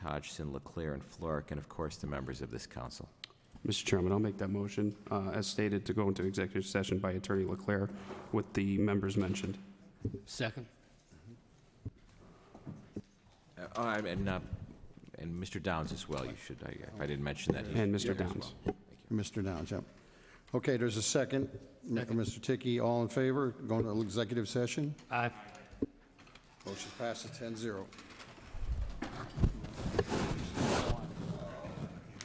Hodgson, Leclerc, and Floric, and of course, the members of this council. Mr. Chairman, I'll make that motion, uh, as stated, to go into executive session by Attorney Leclerc with the members mentioned. Second. Uh, oh, I- And, uh, and Mr. Downs as well, you should, I- if I didn't mention that. he's And Mr. here as Downs. well. Mr. Downs, yep. Okay, there's a second. Mr. Tiki, all in favor, going to executive session? Aye. Motion passes 10-0.